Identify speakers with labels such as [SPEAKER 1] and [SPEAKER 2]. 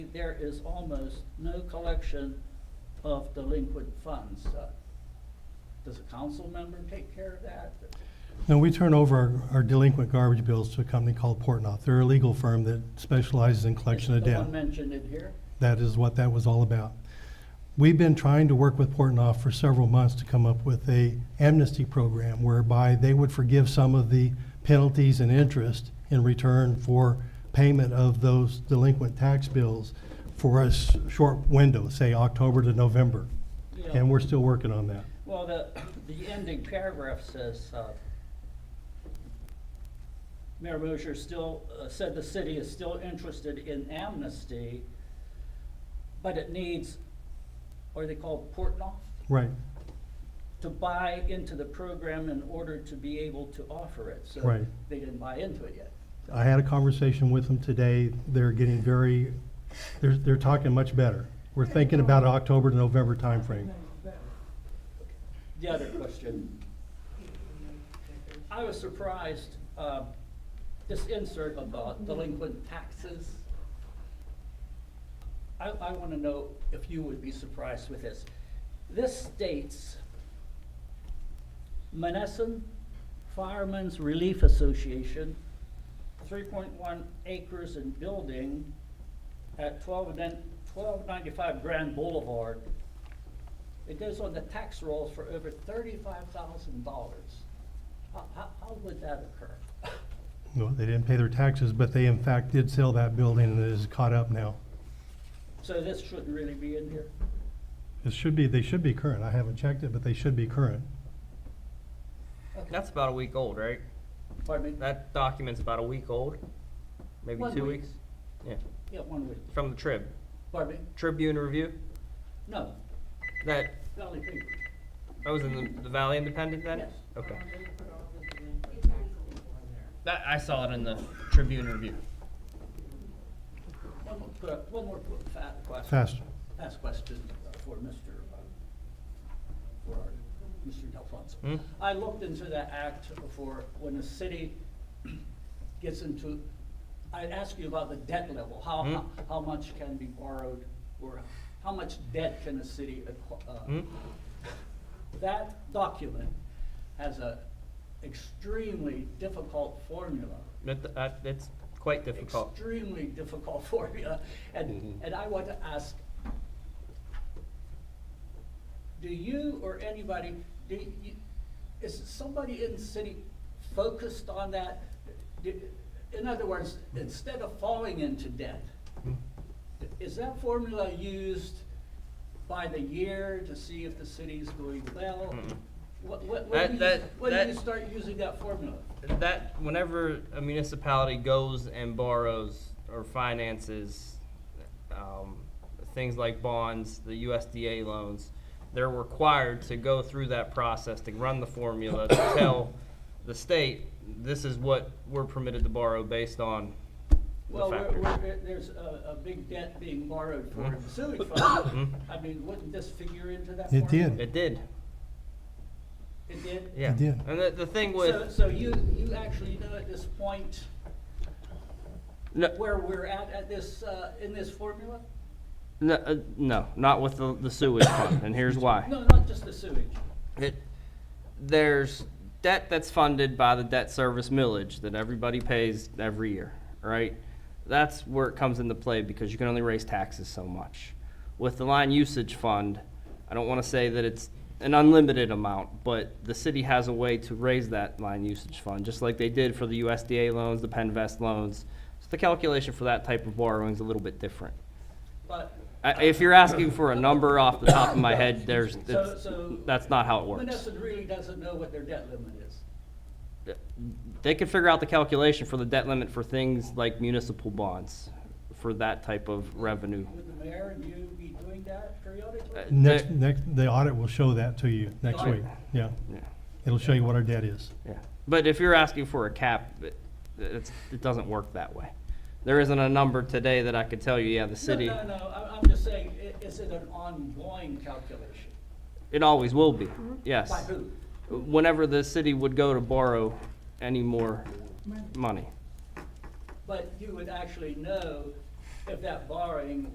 [SPEAKER 1] There is almost no collection of delinquent funds. Uh, Does a council member take care of that?
[SPEAKER 2] No, we turn over our, our delinquent garbage bills to a company called Portnoy. They're a legal firm that specializes in collection of
[SPEAKER 1] Is The one
[SPEAKER 2] debt.
[SPEAKER 1] mentioned in here?
[SPEAKER 2] That is what that was all about. We've been trying to work with Portnoy for several months to come up with a amnesty program whereby they would forgive some of the penalties and interest in return for payment of those delinquent tax bills for a s- short window, say October to November.
[SPEAKER 1] Yeah.
[SPEAKER 2] And we're still working on that.
[SPEAKER 1] Well, the, the ending paragraph says, uh, Mayor Mosher still, uh, said the city is still interested in amnesty, but it needs, what are they called, Portnoy?
[SPEAKER 2] Right,
[SPEAKER 1] To buy into the program in order to be able to offer it. So
[SPEAKER 2] Right.
[SPEAKER 1] they didn't buy into it yet.
[SPEAKER 2] I had a conversation with them today. They're getting very, they're, they're talking much better. We're thinking about October to November timeframe.
[SPEAKER 1] The other question. I was surprised, uh, this insert about delinquent taxes. I, I wanna know if you would be surprised with this. This states Menneson Firemen's Relief Association, three point one acres in building at twelve ninety-five Grand Boulevard. It goes on the tax rolls for over thirty-five thousand dollars. How, how, how would that occur?
[SPEAKER 2] Well, they didn't pay their taxes, but they in fact did sell that building and it is caught up now.
[SPEAKER 1] So this shouldn't really be in here.
[SPEAKER 2] It should be, they should be current. I haven't checked it, but they should be current.
[SPEAKER 3] That's about a week old, right?
[SPEAKER 1] Pardon me?
[SPEAKER 3] That document's about a week old, maybe
[SPEAKER 1] One
[SPEAKER 3] two
[SPEAKER 1] week.
[SPEAKER 3] weeks. Yeah,
[SPEAKER 1] Yeah, one week.
[SPEAKER 3] from the Trib,
[SPEAKER 1] Pardon me?
[SPEAKER 3] Tribune Review.
[SPEAKER 1] No,
[SPEAKER 3] That
[SPEAKER 1] Valley Paper.
[SPEAKER 3] that was in the, the Valley Independent then.
[SPEAKER 1] Yes.
[SPEAKER 3] Okay. That I saw it in the Tribune Review.
[SPEAKER 1] One more, que- one more qu- fa- question.
[SPEAKER 2] Fast.
[SPEAKER 1] Fast question uh, for Mr., uh, for our- Mr. Delphonso.
[SPEAKER 3] Hmm?
[SPEAKER 1] I looked into that act for when a city gets into, I asked you about the debt level, how,
[SPEAKER 3] Hmm?
[SPEAKER 1] how, how much can be borrowed, or how much debt can a city acqu-
[SPEAKER 3] Hmm?
[SPEAKER 1] uh, That document has a extremely difficult formula.
[SPEAKER 3] That, that, that's quite difficult. Mm-hmm.
[SPEAKER 1] Extremely difficult formula, and, and I want to ask, do you or anybody, do you, is somebody in the city focused on that? Do- In other words, instead of falling into debt,
[SPEAKER 3] Hmm.
[SPEAKER 1] is that formula used by the year to see if the city's doing well?
[SPEAKER 3] Mm-mm.
[SPEAKER 1] What, what, when do you,
[SPEAKER 3] Mm-hmm. That- that-
[SPEAKER 1] when do
[SPEAKER 3] that-
[SPEAKER 1] you start using that formula?
[SPEAKER 3] That whenever a municipality goes and borrows or finances um, things like bonds, the USDA loans, they're required to go through that process to run the formula to tell the state this is what we're permitted to borrow based on the
[SPEAKER 1] Well, we're,
[SPEAKER 3] factors.
[SPEAKER 1] we're, there's a, a big debt being borrowed
[SPEAKER 3] Mm-hmm.
[SPEAKER 1] for the sewage fund. I mean, wouldn't this figure into that
[SPEAKER 2] It
[SPEAKER 1] formula?
[SPEAKER 2] did.
[SPEAKER 3] It did,
[SPEAKER 1] It did?
[SPEAKER 3] yeah.
[SPEAKER 2] did.
[SPEAKER 3] And the, the thing
[SPEAKER 1] So,
[SPEAKER 3] with
[SPEAKER 1] so you, you actually know at this point
[SPEAKER 3] no,
[SPEAKER 1] where we're at, at this, uh, in this formula?
[SPEAKER 3] no, uh, no, not with the, the sewage fund, and here's why.
[SPEAKER 1] No, not just the sewage.
[SPEAKER 3] it, there's debt that's funded by the debt service millage that everybody pays every year, right? That's where it comes into play because you can only raise taxes so much. With the line usage fund, I don't want to say that it's an unlimited amount, but the city has a way to raise that line usage fund, just like they did for the USDA loans, the Penvest loans. So the calculation for that type of borrowing is a little bit different.
[SPEAKER 1] But
[SPEAKER 3] I- If you're asking for a number off the top of my head, there's,
[SPEAKER 1] So-
[SPEAKER 3] it's-
[SPEAKER 1] so-
[SPEAKER 3] that's not how it works.
[SPEAKER 1] Menneson really doesn't know what their debt limit is.
[SPEAKER 3] they could figure out the calculation for the debt limit for things like municipal bonds, for that type of revenue.
[SPEAKER 1] Would the mayor and you be doing that periodically?
[SPEAKER 3] Uh,
[SPEAKER 2] Next,
[SPEAKER 3] there-
[SPEAKER 2] next, the audit will show that to you next
[SPEAKER 1] Audit.
[SPEAKER 2] week. Yeah.
[SPEAKER 3] Yeah,
[SPEAKER 2] It'll show you what our debt is.
[SPEAKER 3] yeah. But if you're asking for a cap, it, it's, it doesn't work that way. There isn't a number today that I could tell you, yeah, the city,
[SPEAKER 1] No, no, no, I'm, I'm just saying, i- is it an ongoing calculation?
[SPEAKER 3] it always will be,
[SPEAKER 1] By
[SPEAKER 3] yes.
[SPEAKER 1] who?
[SPEAKER 3] Whenever the city would go to borrow any more money.
[SPEAKER 1] But you would actually know if that borrowing